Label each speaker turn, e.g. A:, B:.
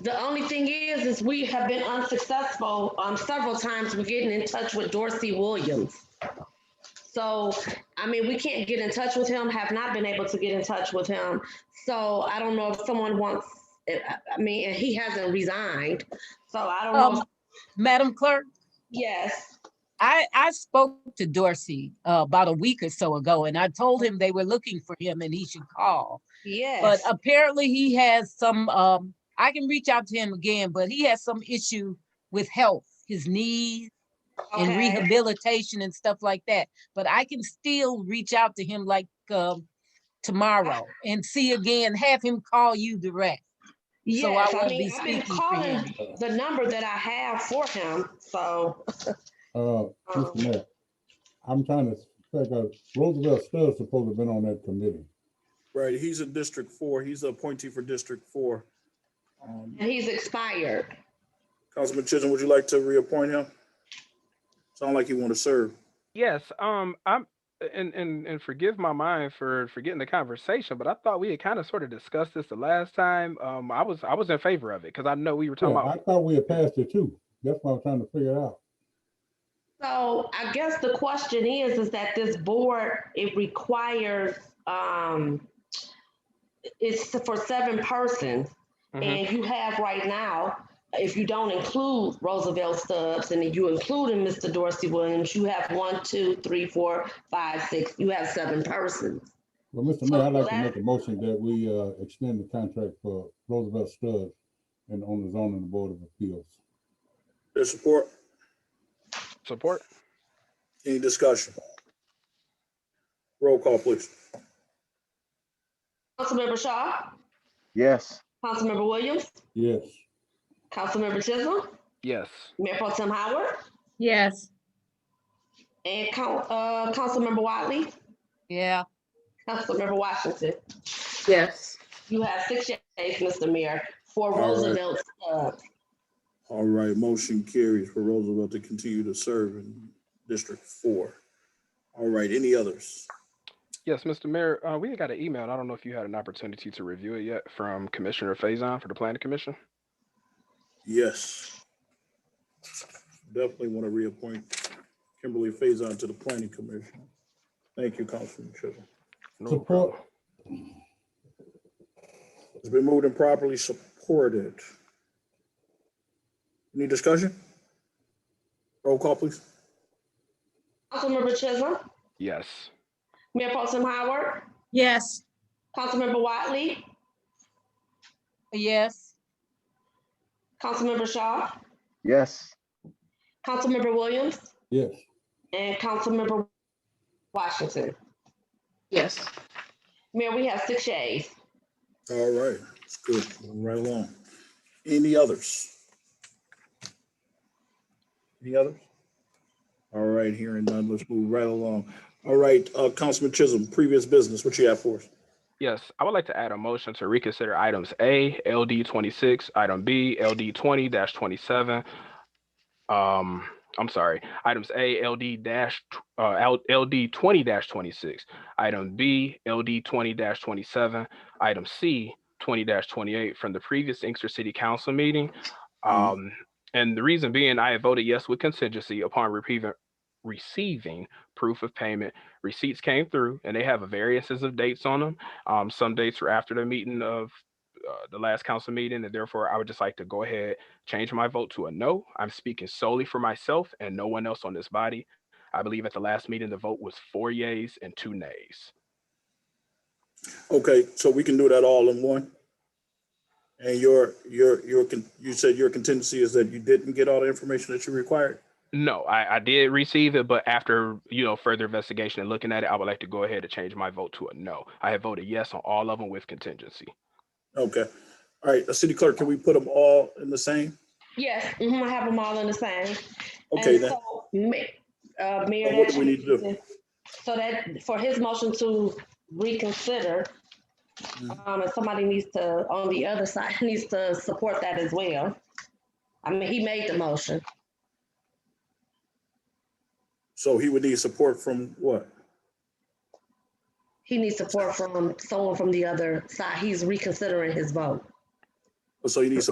A: The only thing is, is we have been unsuccessful, um, several times with getting in touch with Dorsey Williams. So, I mean, we can't get in touch with him, have not been able to get in touch with him. So I don't know if someone wants, I I mean, and he hasn't resigned, so I don't know.
B: Um, Madam Clerk,
A: Yes,
B: I, I spoke to Dorsey uh, about a week or so ago, and I told him they were looking for him and he should call. But
A: yes.
B: apparently he has some, um, I can reach out to him again, but he has some issue with health, his knees uh, and
A: okay.
B: rehabilitation and stuff like that. But I can still reach out to him like, um, tomorrow and see again, have him call you direct. So I
A: Yes, I
B: won't be
A: mean, I've been
B: speaking for him.
A: calling the number that I have for him, so.
C: Uh,
A: um,
C: Mr. Mayor, I'm trying to figure out, Roosevelt Stubbs supposed to have been on that committee.
D: Right, he's in District Four. He's the appointee for District Four. Um,
A: And he's expired.
D: Councilman Chisholm, would you like to reappoint him? Sound like you want to serve.
E: Yes, um, I'm and and and forgive my mind for forgetting the conversation, but I thought we had kind of sort of discussed this the last time. Um, I was I was in favor of it because I know we were talking
C: Yeah, I
E: about.
C: thought we had passed it too. That's what I'm trying to figure out.
A: So I guess the question is, is that this board, it requires, um, it's for seven persons.
E: Mhm.
A: And you have right now, if you don't include Roosevelt Stubbs and if you include in Mr. Dorsey Williams, you have one, two, three, four, five, six, you have seven persons.
C: Well, Mr. Mayor, I'd like to make a motion that we, uh, extend the contract for Roosevelt Stubbs and on the zoning board of appeals.
D: Their support,
E: Support.
D: any discussion? Roll call, please.
A: Councilmember Shaw,
F: yes,
A: Councilmember Williams,
C: Yes,
A: Councilmember Chisholm,
E: Yes.
A: Mayor Pro Tem Howard,
G: yes,
A: and Coun- uh, Councilmember Wiley,
B: Yeah,
A: Councilmember Washington.
G: yes.
A: You have six yeas, Mr. Mayor, for
D: All right.
A: Roosevelt Stubbs.
D: All right, motion carries for Roosevelt to continue to serve in District Four. All right, any others?
E: Yes, Mr. Mayor, uh, we had got an email. and I don't know if you had an opportunity to review it yet from Commissioner Faison for the Planning Commission.
D: Yes. Definitely want to reappoint Kimberly Faison to the Planning Commission. Thank you, Councilman Chisholm.
E: No
C: support,
D: It's been moved and properly supported. Any discussion? Roll call, please.
A: Councilmember Chisholm,
E: Yes.
A: Mayor Pro Tem Howard,
G: Yes,
A: Councilmember Wiley,
B: yes,
A: Councilmember Shaw,
F: yes,
A: Councilmember Williams,
C: yes,
A: and Councilmember Washington.
G: yes.
A: Mayor, we have six yeas.
D: All right, it's good. Moving Right along. Any others? Any others? All right, hearing none, let's move right along. All right, uh, Councilman Chisholm, previous business, what you have for us?
E: Yes, I would like to add a motion to reconsider items A, LD twenty-six, item B, LD twenty twenty-seven. Um, I'm sorry, items A, LD dash, tw- uh, L- LD twenty twenty-six, item B, LD twenty twenty-seven, item C, twenty twenty-eight from the previous Inkster City Council meeting.
D: Mhm.
E: Um, and the reason being, I had voted yes with contingency upon receiving, receiving proof of payment. Receipts came through and they have variances of dates on them. Um, some dates were after the meeting of uh, the last council meeting, and therefore I would just like to go ahead, change my vote to a no. I'm speaking solely for myself and no one else on this body. I believe at the last meeting, the vote was four yays and two nays.
D: Okay, so we can do that all in one? And your, your, your, con- you said your contingency is that you didn't get all the information that you required?
E: No, I, I did receive it, but after, you know, further investigation and looking at it, I would like to go ahead and change my vote to a no. I had voted yes on all of them with contingency.
D: Okay, all right, uh, City Clerk, can we put them all in the same?
A: Yes, mhm, I have them all in the same.
D: Okay,
A: And
D: then,
A: so, Ma- uh, Mayor,
D: So what do we need to do?
A: that- So that, for his motion to reconsider,
D: Mm-hmm.
A: um, and somebody needs to, on the other side, needs to support that as well. I mean, he made the motion.
D: so he would need support from what?
A: He needs support from someone from the other side. He's reconsidering his vote.
D: Oh, So you need support